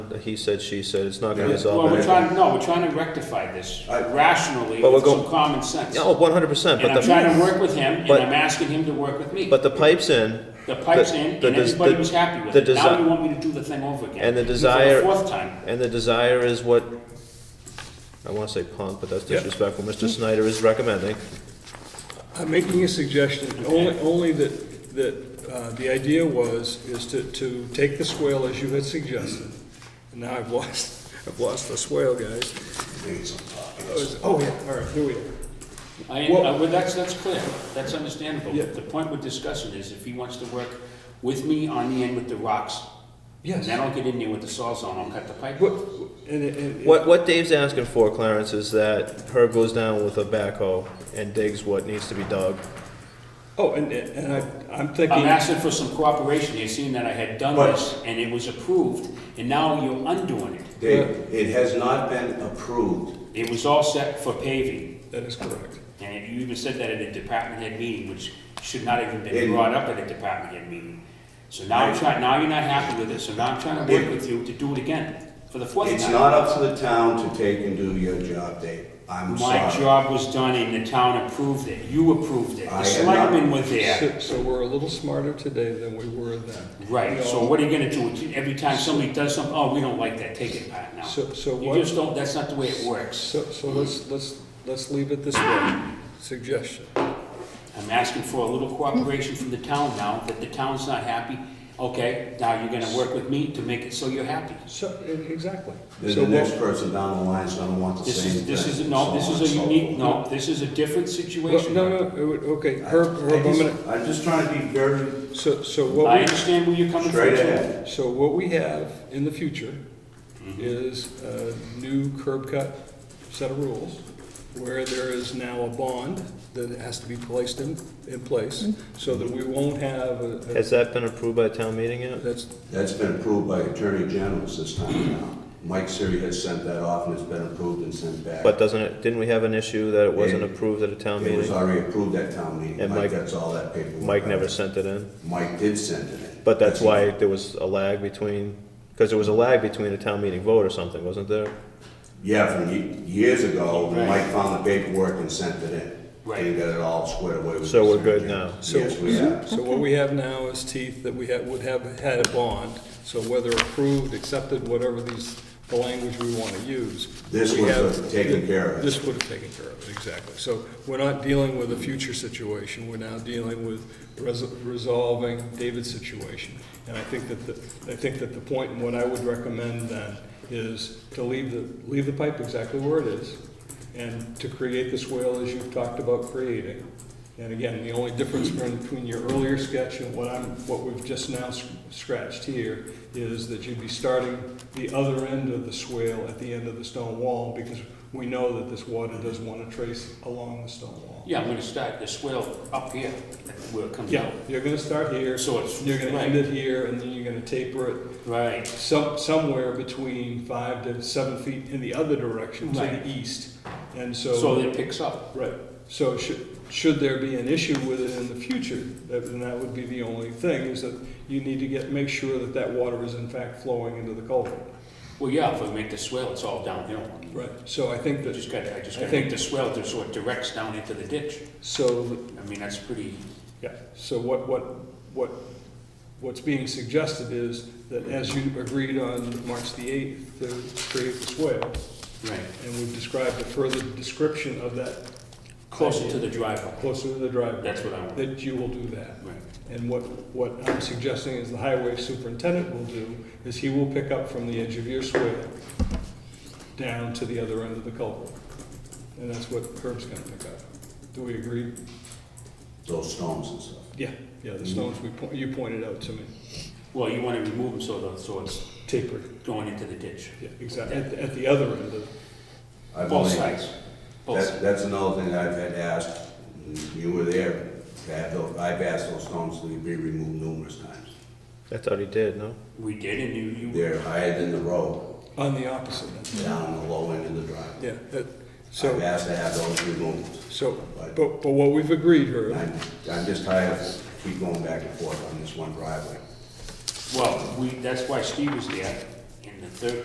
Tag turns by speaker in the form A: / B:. A: not he said, she said, it's not gonna
B: Yeah.
A: resolve
C: Well, we're
A: anything.
C: trying, no, we're trying to rectify this
B: I-
C: rationally
A: But we're
C: with some
A: going-
C: common sense.
A: No, one hundred percent,
C: And
A: but
C: I'm trying to
A: the,
C: work with him, and
A: but-
C: I'm asking him to work with me.
A: but the pipe's in.
C: The pipe's in,
A: the
C: and
A: des-
C: everybody
A: the-
C: was happy with
A: the
C: it. Now
A: desi-
C: you want me to do the thing over again.
A: And the
C: For
A: desire-
C: fourth time.
A: And the desire is what, I wanna say punk, but that's
B: Yeah.
A: disrespectful, Mr. Snyder is recommending.
D: I'm making Uh, a suggestion, only, only that, that uh, the idea was, is to, to take the swale as you had suggested. And now I've lost, I've lost the swale, guys. Oh, is- Oh, yeah, all right, here we are.
C: I,
D: Well-
C: I- well, that's, that's clear, that's understandable.
D: Yeah.
C: The point we're discussing is if he wants to work with me on the end with the rocks,
D: Yes.
C: then I'll get in there with the sawzall and I'll cut the pipe.
D: What, and, and.
A: What, what Dave's asking for, Clarence, is that Herb goes down with a backhoe and digs what needs to be dug.
D: Oh, and, and I, I'm thinking.
C: I'm asking for some cooperation here, seeing that I had done
B: But-
C: this and it was approved, and now you're undoing it.
B: Dave, it has not been approved.
C: It was all set for paving,
D: That is correct.
C: and you even said that at a department head meeting, which should not have even been
B: And-
C: brought up at a department head meeting. So now I'm trying, now you're not happy with it, so now I'm trying to work
B: It-
C: with you to do it again, for the fourth time.
B: It's not up to the town to take and do your job, Dave. I'm
C: My
B: sorry.
C: job was done and the town approved it, you approved it,
B: I
C: the
B: am
C: selectmen
B: not-
C: were there.
D: So, so we're a little smarter today than we were then.
C: Right, so
D: No.
C: what are you gonna do, every time somebody does something, oh, we don't like that, take it back now.
D: So- so
C: You
D: what-
C: just don't, that's not the way it works.
D: So, so let's, let's, let's leave it this way, suggestion.
C: I'm asking for a little cooperation from the town now, that the town's not happy, okay, now you're gonna work with me to make it so you're happy.
D: So, e- exactly.
B: Then the
D: So what-
B: next person down the line is gonna want the
C: This
B: same
C: is,
B: thing.
C: this is, no,
B: so
C: this
B: on
C: is
B: and
C: a
B: so
C: unique,
B: forth.
C: no, this is a different
D: Well,
C: situation.
D: No, no, it would- okay,
B: I-
D: Herb,
B: I
D: Herb, I'm
B: just-
D: gonna,
B: I'm just trying to be very
D: so, so
C: I
D: what,
C: understand where you're coming from.
B: straight
C: too.
B: ahead.
D: we- so what we have in the future is a new curb cut set of rules where there is now a bond that has to be placed in, in place
B: Mm-hmm.
D: so that we won't have a, a-
A: Has that been approved by town meeting yet?
D: that's,
B: That's been approved by Attorney General's this time around. Mike Siri has sent that off and it's been approved and sent back.
A: But doesn't it, didn't we have an issue that it wasn't
B: It-
A: approved at a town
B: It was
A: meeting?
B: already approved at town meeting.
A: And
B: Mike,
A: Mike-
B: that's all that paperwork.
A: Mike never sent it in,
B: Mike did send it in.
A: but that's why there was a lag between, because there was a lag between a town meeting vote or something, wasn't there?
B: Yeah, from ye- years ago,
C: Right.
B: Mike found the paperwork and sent it in.
C: Right.
B: And got it all squared away with.
A: So we're
B: the
A: good
B: Attorney
A: now.
B: General. Yes, we are.
D: so what we have now is teeth that we had, would have had a bond. So whether approved, accepted, whatever these, the language we want to use.
B: This
D: we
B: would
D: have-
B: have taken care of it.
D: This would have taken care of it, exactly. So we're not dealing with a future situation, we're now dealing with res- resolving David's situation. And I think that the, I think that the point, and what I would recommend then, is to leave the, leave the pipe exactly where it is, and to create the swale as you've talked about creating. And again, the only difference between your earlier sketch and what I'm, what we've just now s- scratched here is that you'd be starting the other end of the swale at the end of the stone wall because we know that this water does want to trace along the stone wall.
C: Yeah, I'm gonna start the swell up here, where it comes
D: Yeah,
C: out.
D: you're gonna start here,
C: So it's-
D: you're gonna
C: right.
D: end it here, and then you're gonna taper it
C: Right.
D: some, somewhere between five to seven feet in the other direction, to
C: Right.
D: the east. And
C: So that it picks up.
D: Right, so should, should there be an issue with it in the future, that- then that would be the only thing, is that you need to get, make sure that that water is in fact flowing into the culvert.
C: Well, yeah, if I make the swell, it's all downhill.
D: Right, so I
C: I
D: think that,
C: just gotta, I just
D: I
C: gotta
D: think-
C: make the swell to sort of directs down into the ditch.
D: so, that-
C: I mean, that's pretty,
D: yeah, so what, what, what, what's being suggested is that as you agreed on March the eighth to create the swale,
C: right,
D: and we've described a further description of that
C: closer to the driveway.
D: closer to the driveway,
C: That's what I want.
D: that you will do that.
C: Right.
D: And what, what I'm suggesting is the highway superintendent will do is he will pick up from the edge of your swale down to the other end of the culvert. And that's what Herb's gonna pick up. Do we agree?
B: Those stones and stuff.
D: Yeah, yeah, the stones we, po- you pointed out to me,
C: Well, you wanna remove them so the, so it's
D: tapered,
C: going into the ditch.
D: yeah, exactly, at, at the other end of,
B: I've
C: Both
B: only-
C: sides, both
B: That's,
C: sides.
B: that's another thing I've had asked, and you were there, to have those, I've asked those stones to be removed numerous times.
A: I thought he did, no?
C: We did, and you, you,
B: They're higher than the road,
D: on the opposite end,
B: down the low end of the driveway.
D: yeah, that,
B: I've
D: so,
B: asked to have those removed.
D: so, but, but what we've agreed, Herb,
B: I'm, I'm just tired of keep going back and forth on this one driveway.
C: well, we, that's why Steve was there, and the third